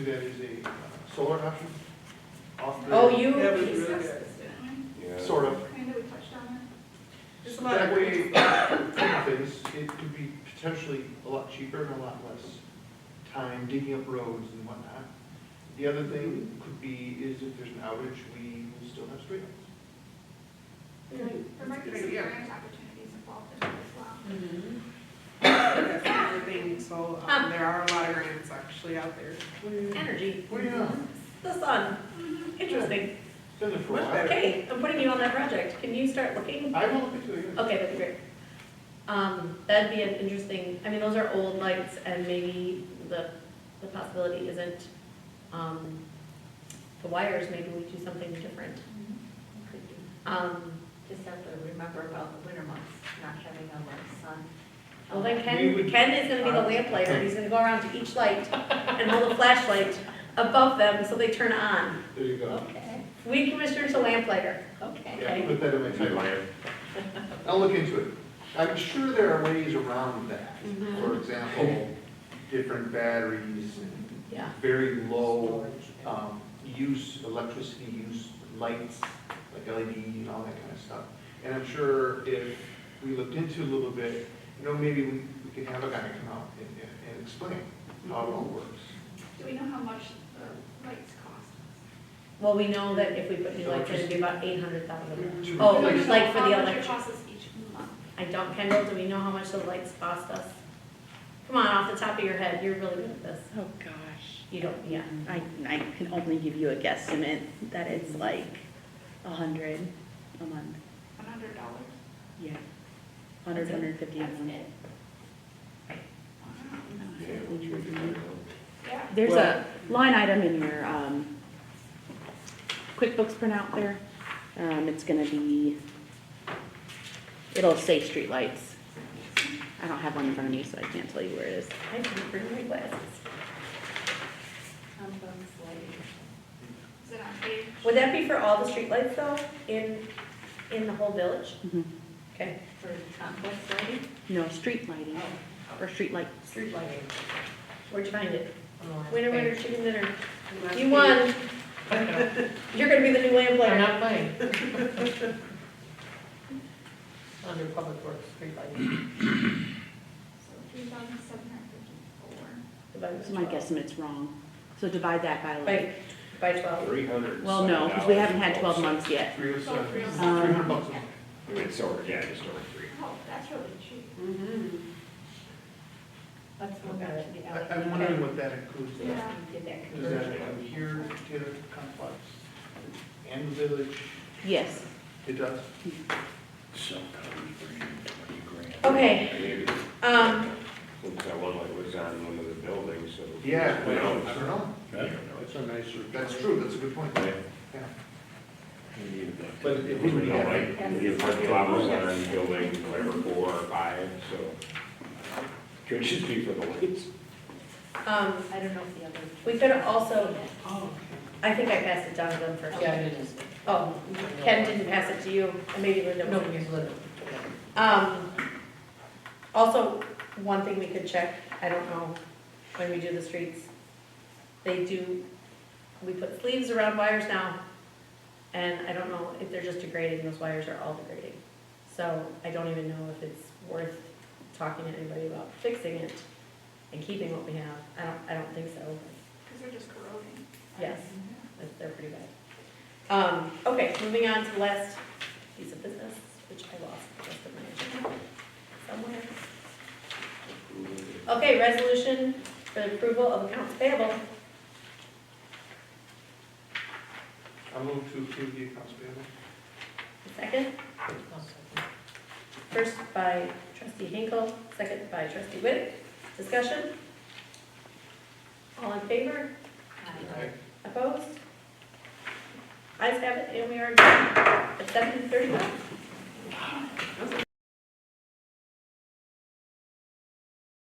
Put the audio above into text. That is a uh, solar option, off-grid. Oh, you Yeah, we really discussed good. this, didn't we? Yeah. Sort of. Kind of, we touched on that. There's a lot of That way, uh, great- things, it could be potentially a lot cheaper and a lot less time digging up roads and whatnot. The other thing could be is if there's an outage, we will still have street lights. There might be Good some idea. grant opportunities involved in it as well. Mm-hmm. That's another thing, so um, Um. there are a lot of grants actually out there. Energy. Well, Oh, yeah. The sun. Interesting. Send it for a while. Much Mm-hmm. better. Okay, I'm putting you on that project. Can you start looking? I will look into it, yeah. Okay, that'd be great. Um, that'd be an interesting, I mean, those are old lights and maybe the, the possibility isn't, um, the wires, maybe we do something different. Could be. Um, Just have to remember about the winter months, not having a lot of sun. well, then We Ken, would- Uh, Ken is gonna be the lamplighter. He's gonna go around to each light and hold a flashlight above them so they turn on. There you go. Okay, Weed commissioner to lamplighter. okay. Yeah, I'll put that in my timeline. I'll look into it. I'm sure there are ways around that. Mm-hmm. For example, different batteries and Yeah. very low um, use, electricity use, lights, like LED and all that kind of stuff. And I'm sure if we looked into it a little bit, you know, maybe we we could have a guy come out and- and- and explain how it all works. Do we know how much the lights cost? Well, we know that if we put new lights in, it'd be about eight hundred thousand. To- Oh, We don't it's know like for the How much electric- it costs us each month? I don't, Kendall, do we know how much the lights cost us? Come on, off the top of your head, you're really good at this. Oh, gosh. You don't, yeah. I, I can only give you a guesstimate that it's like a hundred a month. One hundred dollars? Yeah. Hundred, That's it. hundred fifty a month. Yeah, what you're doing. Yeah. There's a line item in your, um, QuickBooks printout there. Um, it's gonna be, it'll say streetlights. I don't have one in front of me, so I can't tell you where it is. I didn't bring my glasses. Some bugs like- Is it on page? Would that be for all the streetlights though, in, in the whole village? Mhm. Okay. for compost lighting. No, street lighting, or streetlight, Street lighting. Where'd you find it? Oh, Winner, winner, chicken dinner. Must You be- won. You're gonna be the new lamplighter. I'm not playing. Under public works, street lighting. So three thousand seven hundred fifty-four. Divided by my 12. guesstimate's wrong. So divide that by like, By, by twelve. Three hundred. well, no, because we haven't had twelve months yet. Three oh seven, Oh, three three oh seven. hundred bucks a month. It's over, yeah, just over three. Oh, that's really cheap. Mhm. Let's move on Okay. to the I- other. I'm wondering what that includes. We have to get that Does that conversion. include here, Taylor Complex, and the village? Yes, It does. So, come bring twenty grand. Okay, Maybe. um, Looks like one like was on one of the buildings, so. Yeah, Who I don't knows? know. I don't know. That's a nicer. That's true, that's a good point. But- Yeah. But it would be like, the parking lot was on building whatever, four or five, so. Could just be for the lights. um, I don't know if the other. we could also, Oh, I think I passed it down to them first. yeah, it is. Oh, Ken didn't pass it to you, and maybe Linda No, will. it's little. Um, also, one thing we could check, I don't know, when we do the streets, they do, we put sleeves around wires now, and I don't know if they're just degrading, those wires are all degrading. So I don't even know if it's worth talking to anybody about fixing it and keeping what we have. I don't, I don't think so, Because they're just corroding. yes, that's- they're pretty bad. Um, okay, moving on to the last piece of business, which I lost the rest of my agenda somewhere. Okay, resolution for the approval of accounts payable. I move to approve the accounts payable. Second, Okay. first by trustee Hinkle, second by trustee Witt. Discussion? All in favor? Aye. Opposed? Ayes have it, and we are adjourned at seven thirty-one.